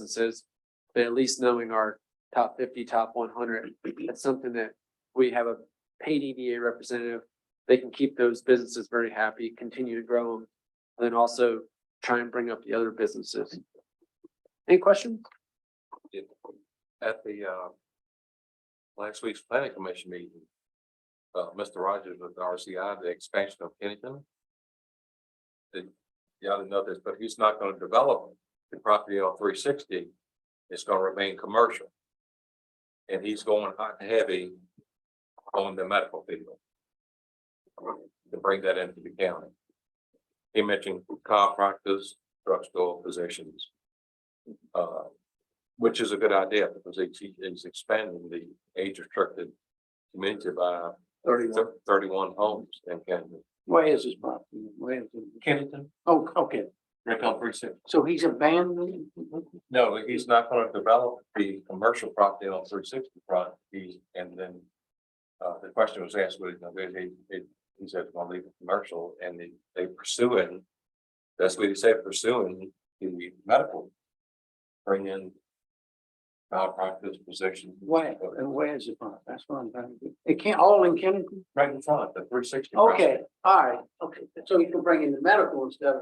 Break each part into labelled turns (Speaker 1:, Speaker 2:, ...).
Speaker 1: businesses, but at least knowing our top fifty, top one hundred, that's something that we have a paid EDA representative. They can keep those businesses very happy, continue to grow them, and then also try and bring up the other businesses. Any questions?
Speaker 2: at the uh. Last week's planning commission meeting. Uh, Mr. Rogers with the RCI, the expansion of Kennington. Did, y'all didn't know this, but he's not gonna develop the property on three sixty. It's gonna remain commercial. And he's going hot and heavy on the medical field. To bring that into the county. He mentioned chiropractors, drugstore physicians. Uh, which is a good idea because it's, it's expanding the age restricted community by
Speaker 3: Thirty-one.
Speaker 2: thirty-one homes in Camden.
Speaker 3: Where is his property? Where is it?
Speaker 2: Camden,
Speaker 3: Oh, okay.
Speaker 2: Rick Precinct.
Speaker 3: So he's abandoning?
Speaker 2: No, he's not gonna develop the commercial property on three sixty front, he, and then. Uh, the question was asked, would it, he, he, he said, "Well, leave it commercial, and they, they pursuing. That's what he said, pursuing the medical. Bring in. Malpractice position.
Speaker 3: Where, and where is the property? That's what I'm trying to do. It can't, all in Kennington?
Speaker 2: Right in front, the three sixty.
Speaker 3: Okay, all right, okay. So you can bring in the medical instead of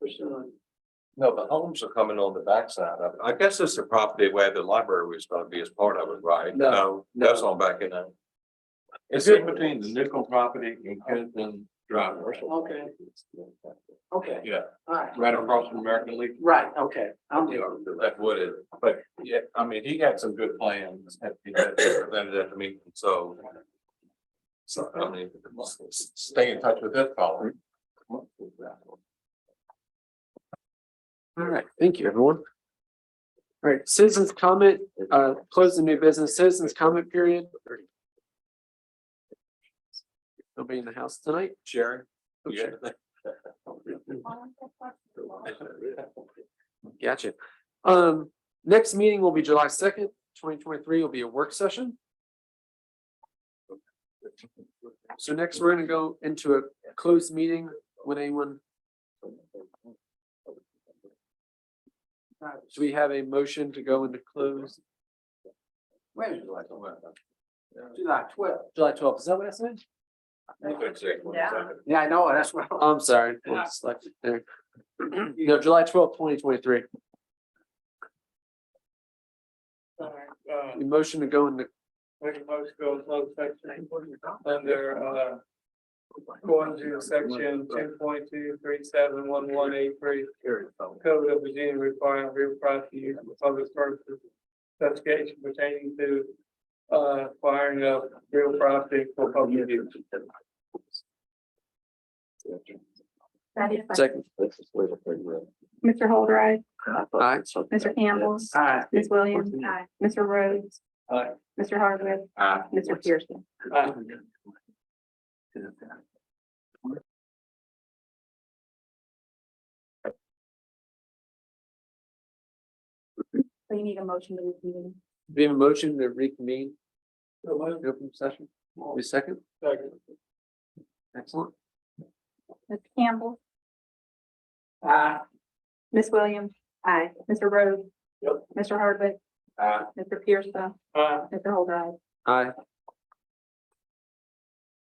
Speaker 3: pursuing.
Speaker 2: No, the homes are coming on the backside of it. I guess it's the property where the library was gonna be as part of it, right?
Speaker 1: No,
Speaker 2: That's on back in there. It's in between the nickel property and Kennington Drive.
Speaker 3: Okay. Okay,
Speaker 2: Yeah,
Speaker 3: all right.
Speaker 2: right across from American Legion.
Speaker 3: Right, okay. I'm with you.
Speaker 2: That would it, but yeah, I mean, he had some good plans at the, presented at the meeting, so. So, I mean, stay in touch with that fellow.
Speaker 1: All right, thank you, everyone. All right, citizens comment, uh, close the new business, citizens comment period. They'll be in the house tonight.
Speaker 2: Sharon?
Speaker 1: Okay, Gotcha. Um, next meeting will be July second, twenty twenty-three will be a work session. So next, we're gonna go into a closed meeting with anyone. So we have a motion to go into close
Speaker 3: When is July? July twelfth.
Speaker 1: July twelfth, is that what I said?
Speaker 3: Yeah, I know, that's what.
Speaker 1: I'm sorry. I was selected there. No, July twelfth, twenty twenty-three,
Speaker 3: Uh,
Speaker 1: motion to go into,
Speaker 3: make a motion go close section under, uh, according to section two point two three seven one one eight three. Code of Virginia requiring real property use for public purposes. Investigation pertaining to, uh, acquiring of real property for public use.
Speaker 1: second,
Speaker 4: Mr. Holdride,
Speaker 1: aye,
Speaker 4: Mr. Campbell,
Speaker 3: Aye.
Speaker 4: Ms. Williams, Mr. Rhodes.
Speaker 3: Aye.
Speaker 4: Mr. Hardwick, Mr. Pearson. So you need a motion to reconvene.
Speaker 1: we have a motion to reconvene, the open session, we second, excellent.
Speaker 4: Ms. Campbell,
Speaker 3: Aye.
Speaker 4: Ms. Williams. Aye. Mr. Rhodes.
Speaker 3: Yep.
Speaker 4: Mr. Hardwick, Mr. Pearson,
Speaker 3: Aye.
Speaker 4: Mr. Holdride.
Speaker 1: Aye,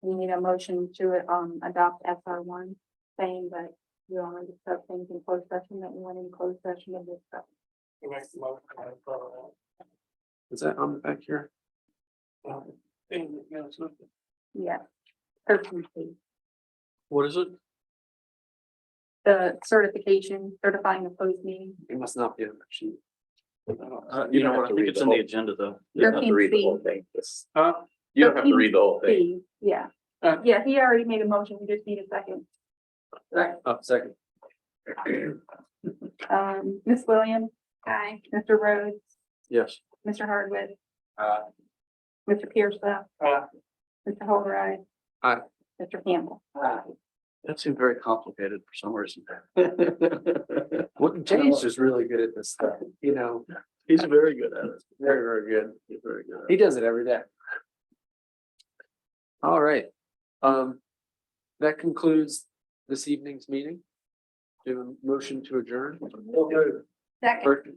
Speaker 4: You need a motion to, um, adopt SR one, saying that you only discuss things in closed session that you want in closed session of this. stuff.
Speaker 1: is that on the back here?
Speaker 4: Yes. Thirteen, please.
Speaker 1: What is it?
Speaker 4: the certification certifying a closed meeting.
Speaker 1: It must not be on that sheet. Uh,
Speaker 5: You know, what? I think it's in the agenda though. You don't have to read the whole thing. It's-
Speaker 1: Huh?
Speaker 5: You don't have to read the whole thing.
Speaker 4: Please, Yeah,
Speaker 1: Uh.
Speaker 4: yeah, he already made a motion, we just need a second.
Speaker 1: Oh, second,
Speaker 4: Um, Ms. Williams. Aye. Mr. Rhodes,
Speaker 1: yes,
Speaker 4: Mr. Hardwick.
Speaker 2: Aye.
Speaker 4: Mr. Pierce.
Speaker 3: Aye.
Speaker 4: Mr. Holderide.
Speaker 1: Aye.
Speaker 4: Mr. Campbell.
Speaker 5: That seemed very complicated for some reason.
Speaker 1: what, James is really good at this stuff, you know,
Speaker 5: He's very good at it.
Speaker 1: very, very good.
Speaker 5: He's very good. at it.
Speaker 1: He does it every day. All right, um, that concludes this evening's meeting. Do a motion to adjourn.
Speaker 4: Second.
Speaker 1: First,